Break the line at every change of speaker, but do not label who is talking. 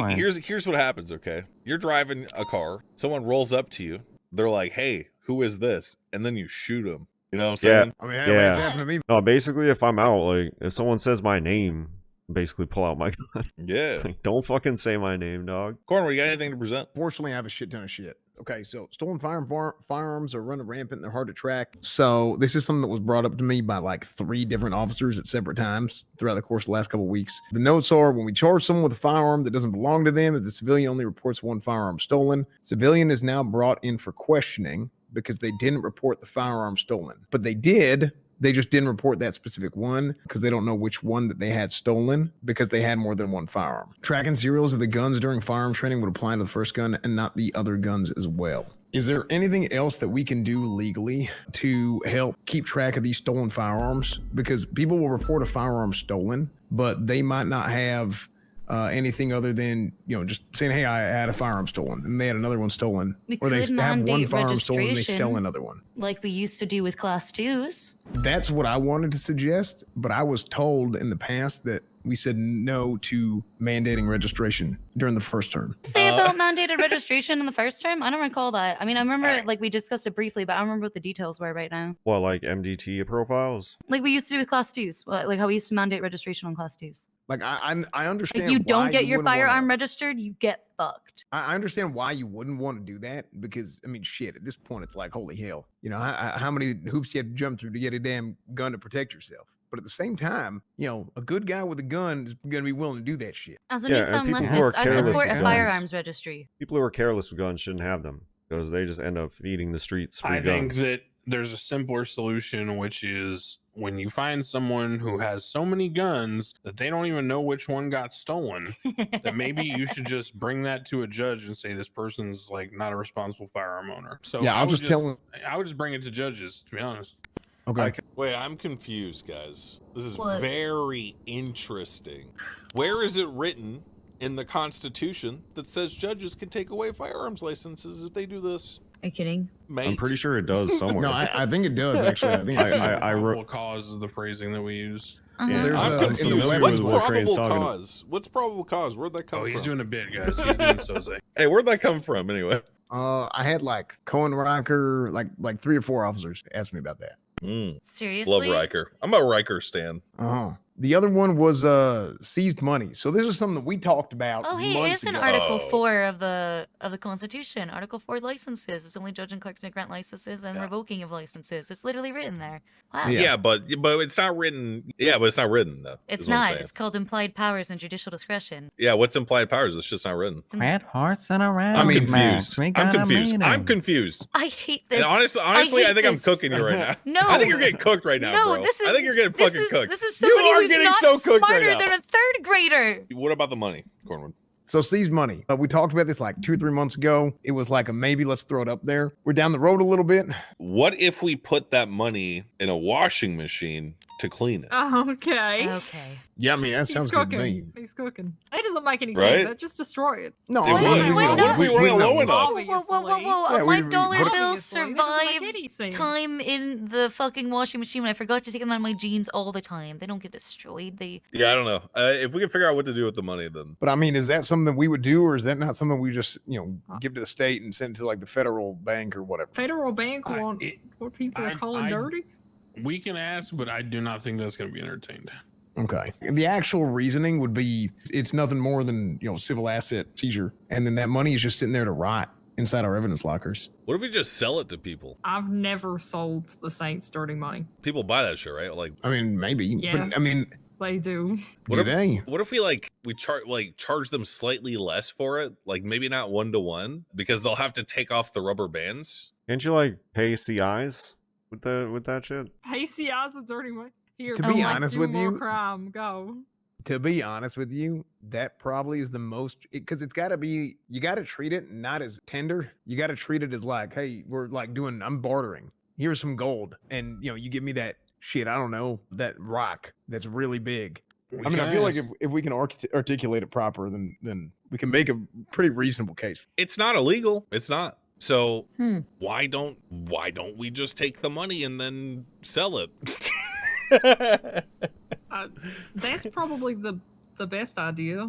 fine.
Here's here's what happens, okay? You're driving a car, someone rolls up to you, they're like, "Hey, who is this?" And then you shoot them. You know what I'm
Yeah.
saying?
I mean, hey,
Yeah.
it's happened to me.
No, basically, if I'm out, like, if someone says my name, basically pull out my gun.
Yeah.
like, don't fucking say my name, dog.
Cornwall, you got anything to present?
Fortunately, I have a shit ton of shit. Okay, so stolen firearm far- firearms are running rampant. They're hard to track. So this is something that was brought up to me by like three different officers at separate times throughout the course of the last couple of weeks. The notes are: when we charge someone with a firearm that doesn't belong to them, if the civilian only reports one firearm stolen, civilian is now brought in for questioning because they didn't report the firearm stolen, but they did. They just didn't report that specific one because they don't know which one that they had stolen because they had more than one firearm. Tracking serials of the guns during firearm training would apply to the first gun and not the other guns as well. Is there anything else that we can do legally to help keep track of these stolen firearms? Because people will report a firearm stolen, but they might not have uh, anything other than you know just saying, "Hey, I had a firearm stolen," and they had another one stolen,
We
or they
could
have one
mandate
firearm stolen and they sell
registration.
another one.
like we used to do with class twos.
That's what I wanted to suggest, but I was told in the past that we said no to mandating registration during the first term.
Say
Uh,
about mandated registration in the first term? I don't recall that. I mean, I remember
Alright.
like we discussed it briefly, but I don't remember what the details were right now.
What, like MDT profiles?
Like we used to do with class twos, li- like how we used to mandate registration on class twos.
Like I, I'm- I, I understand.
If you
why
don't get your
wouldn't wanna-
firearm registered, you get fucked.
I I understand why you wouldn't want to do that because I mean, shit. At this point, it's like holy hell. You know, how, how many hoops you have to jump through to get a damn gun to protect yourself. But at the same time, you know, a good guy with a gun is going to be willing to do that shit.
As a
Yeah, and
newfound
people who are
leftist, I
careless
support
with
a
guns.
firearms registry.
People who are careless with guns shouldn't have them because they just end up feeding the streets free
I think
guns.
that there's a simpler solution, which is when you find someone who has so many guns that they don't even know which one got stolen, that maybe you should just bring that to a judge and say this person's like not a responsible firearm owner. So
yeah,
I
I'll
would
just, tell him.
I would just bring it to judges, to be honest.
Okay.
Wait, I'm confused, guys. This is
What?
very interesting. Where is it written in the Constitution that says judges can take away firearms licenses if they do this?
Are you kidding?
Mate.
I'm pretty sure it does somewhere.
no, I, I think it does actually. I think
I-
I, see
I-
it.
I wrote-
Probable cause is the phrasing that we use.
Uh-huh.
Yeah.
There's
I'm
a- in the
confused.
web-
What's
with what Crane's
probable
talking about.
cause? What's probable cause? Where'd that come
Oh,
from?
he's doing a bid, guys. He's doing soze.
hey, where'd that come from anyway?
Uh, I had like Cohen Rocker, like like three or four officers asked me about that.
Mm,
Seriously?
love Riker. I'm a Riker stan.
Uh huh. The other one was uh seized money. So this is something that we talked about.
Oh, hey, it
months
is in
ago.
Article
Oh.
Four of the of the Constitution. Article Four licenses. It's only judge and clerks may grant licenses and
Yeah.
revoking of licenses. It's literally written there. Wow.
Yeah.
Yeah.
but but it's not written. Yeah, but it's not written though.
It's
is what I'm
not.
saying.
It's called implied powers and judicial discretion.
Yeah, what's implied powers? It's just not written.
It's in-
Red hearts and a round
I'm
match.
confused.
We
I'm
got a
confused. I'm
meeting.
confused.
I hate this.
And honestly, honestly, I,
hate
think
this.
I'm cooking you right now.
No,
I think you're getting cooked right now,
No,
bro.
this
I
is-
think you're getting
this
fucking
is,
cooked.
This is
You
somebody
are
who's
getting
not
so cooked right
smarter
now.
than a third grader.
What about the money, Cornwood?
So seized money. Uh, we talked about this like two or three months ago. It was like a maybe. Let's throw it up there. We're down the road a little bit.
What if we put that money in a washing machine to clean it?
Okay.
Okay.
Yeah, I mean that
He's
sounds good to me.
cooking. He's cooking. It doesn't make any
Right?
sense. That just destroy it.
No,
It
I mean,
would.
we know.
Why not?
We weren't
know.
low enough.
Whoa, whoa, whoa, whoa, whoa!
Yeah,
My
we- we-
dollar
what-
bills
Obviously, that doesn't make
survived
any sense.
time in the fucking washing machine when I forgot to take them out of my jeans all the time. They don't get destroyed. They
Yeah, I don't know. Uh, if we can figure out what to do with the money, then
But I mean, is that something we would do, or is that not something we just you know
Huh.
give to the state and send it to like the federal bank or whatever?
Federal Bank
I-
want
it-
what people
I-
are calling
I-
dirty.
We can ask, but I do not think that's going to be entertained.
Okay. The actual reasoning would be it's nothing more than, you know, civil asset seizure. And then that money is just sitting there to rot inside our evidence lockers.
what if we just sell it to people?
I've never sold the Saints dirty money.
People buy that shit, right? Like,
I mean, maybe. But I
Yes.
mean,
They do.
What
do
if-
they?
what if we like we charge like charge them slightly less for it? Like maybe not one to one because they'll have to take off the rubber bands.
Can't you like pay CIs with the with that shit?
PCIs with dirty money. Here,
To
be
Mike,
honest
do
with
more
you-
crime. Go.
To be honest with you, that probably is the most because it's got to be, you got to treat it not as tender. You got to treat it as like, hey, we're like doing, I'm bartering. Here's some gold. And, you know, you give me that shit, I don't know, that rock that's really big.
We
I mean,
can
I feel like
ask.
if, if we can arch- articulate it proper, then then we can make a pretty reasonable case.
It's not illegal. It's not. So
Hmm.
why don't why don't we just take the money and then sell it?
Uh, that's probably the the best idea.